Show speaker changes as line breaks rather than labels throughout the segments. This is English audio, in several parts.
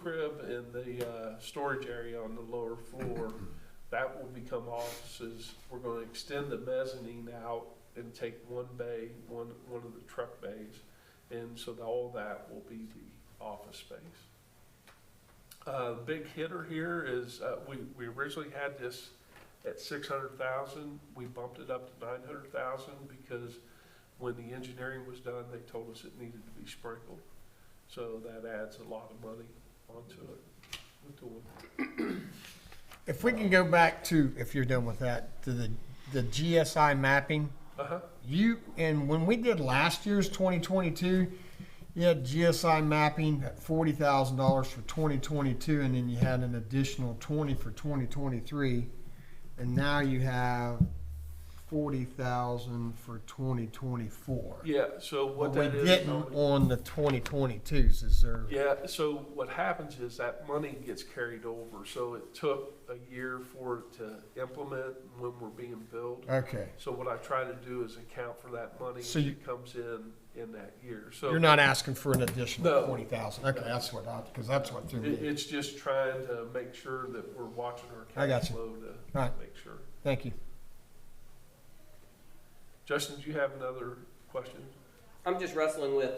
crib and the uh, storage area on the lower floor, that will become offices. We're going to extend the mezzanine out and take one bay, one, one of the truck bays. And so the- all that will be the office space. Uh, Big hitter here is, uh, we we originally had this at 600,000. We bumped it up to 900,000 because when the engineering was done, they told us it needed to be sprinkled. So that adds a lot of money onto it. We're doing-
If we can go back to, if you're done with that, to the, the GSI mapping,
Uh-huh,
you, and when we did last year's twenty twenty-two, you had GSI mapping at forty thousand dollars for twenty twenty-two, and then you had an additional twenty for twenty twenty-three. And now you have forty thousand for twenty twenty-four.
yeah, so what
we
that is.
didn't on the twenty twenty-twos, is there?
Yeah, so what happens is that money gets carried over, so it took a year for it to implement when we're being billed.
Okay,
So what I try to do is account for that money
So you-
that comes in, in that year, so.
you're not asking for an additional
No.
twenty thousand, okay, that's what I, because that's what threw me.
It, it's just trying to make sure that we're watching
I
our
got
cash
you.
flow to
Right.
make sure.
Thank you.
Justin, do you have another question?
I'm just wrestling with,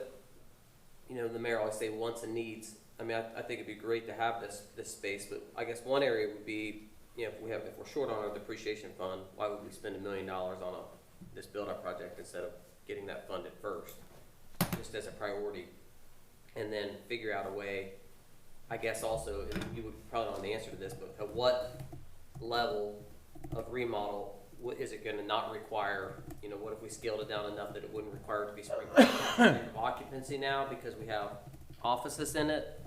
you know, the mayor always say wants and needs. I mean, I, I think it'd be great to have this, this space, but I guess one area would be, you know, if we have, if we're short on our depreciation fund, why would we spend a million dollars on a, this build-out project instead of getting that funded first? Just as a priority, and then figure out a way, I guess also, and you would probably know the answer to this, but at what level of remodel, what, is it gonna not require, you know, what if we scaled it down enough that it wouldn't require it to be sprinkled? Occupancy now because we have offices in it,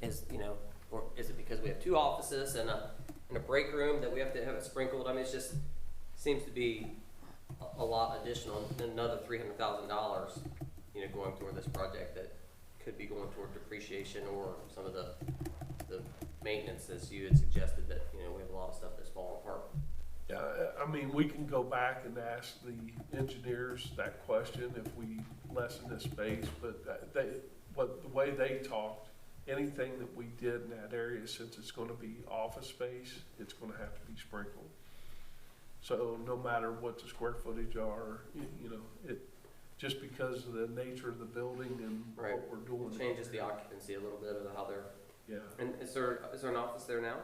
is, you know, or is it because we have two offices and a, and a break room that we have to have it sprinkled? I mean, it's just, seems to be a- a lot additional, another three hundred thousand dollars, you know, going toward this project that could be going toward depreciation or some of the, the maintenance as you had suggested that, you know, we have a lot of stuff that's falling apart.
Yeah, Uh, I- I mean, we can go back and ask the engineers that question if we lessen the space, but that- they, what, the way they talked, anything that we did in that area, since it's gonna be office space, it's gonna have to be sprinkled. So no matter what the square footage are, you, you know, it, just because of the nature of the building and
Right.
what we're doing.
It changes the occupancy a little bit of how they're,
Yeah,
and is there, is there an office there now?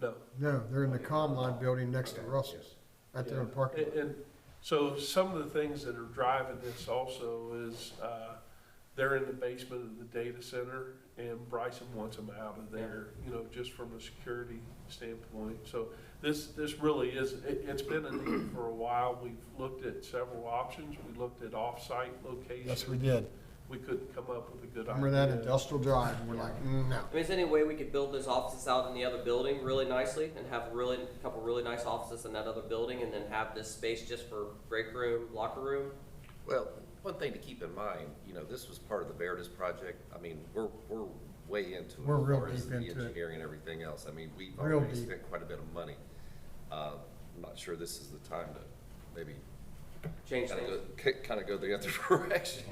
no.
No, they're in the Comline building next to
Okay,
Russell's, right there in the parking
And,
lot.
and so some of the things that are driving this also is, uh, they're in the basement of the data center and Bryson wants them out of there, you know, just from a security standpoint. So this, this really is, it, it's been a need for a while. We've looked at several options. We looked at off-site
Yes, we
locations.
did.
We couldn't come up with a good idea.
Remember that industrial drive, we're like, no.
I mean, is there any way we could build those offices out in the other building really nicely and have really, a couple really nice offices in that other building and then have this space just for break room, locker room?
Well, one thing to keep in mind, you know, this was part of the Veritas project. I mean, we're, we're way into it.
We're
as
real
far as
deep
the
into it.
Engineering and everything else. I mean, we've
Real
already
deep.
spent quite a bit of money. Uh, I'm not sure this is the time to maybe
Change
kind of
things?
go, kind of go the other direction.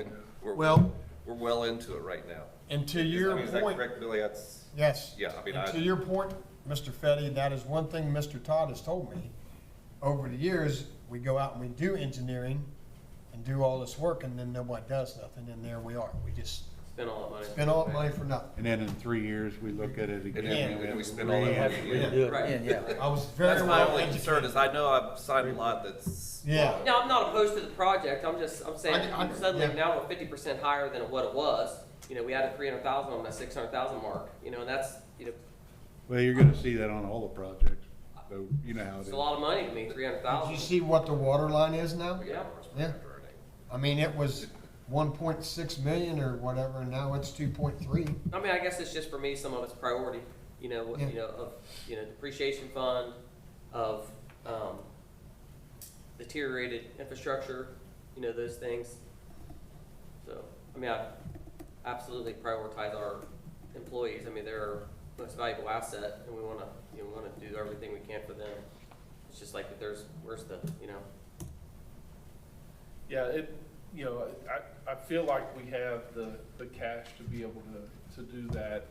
We're-
Well-
We're well into it right now.
And to
Is- I
your
mean, Is that
point,
correct, Billy? That's,
yes.
Yeah, I mean,
And
I-
To your point, Mr. Fetty, that is one thing Mr. Todd has told me. Over the years, we go out and we do engineering and do all this work, and then nobody does nothing, and there we are. We just
Spend all that money.
spend all that money for nothing.
And then in three years, we look at it
then-
again. and
and
have
we
to
spend all that money
rehash it.
again.
Yeah.
Right.
I was very
That's my
well
only concern
educated.
is I know I've signed a lot that's.
Yeah.
No, I'm not opposed to the project, I'm just, I'm saying,
I- I-
suddenly
yeah.
now we're fifty percent higher than what it was. You know, we added three hundred thousand on that six hundred thousand mark, you know, and that's, you know,
Well, you're gonna see that on all the projects, so you know how it
it's
is.
a lot of money to me, three hundred
Did
thousand.
you see what the water line is now?
Yeah.
Yeah. I mean, it was one point six million or whatever, and now it's two point three.
I mean, I guess it's just for me, some of it's priority, you know, what-
Yeah.
you know, of, you know, depreciation fund, of, um, deteriorated infrastructure, you know, those things. So, I mean, I absolutely prioritize our employees, I mean, they're our most valuable asset, and we wanna, you know, wanna do everything we can for them. It's just like, if there's, where's the, you know,
Yeah, it, you know, I, I feel like we have the, the cash to be able to, to do that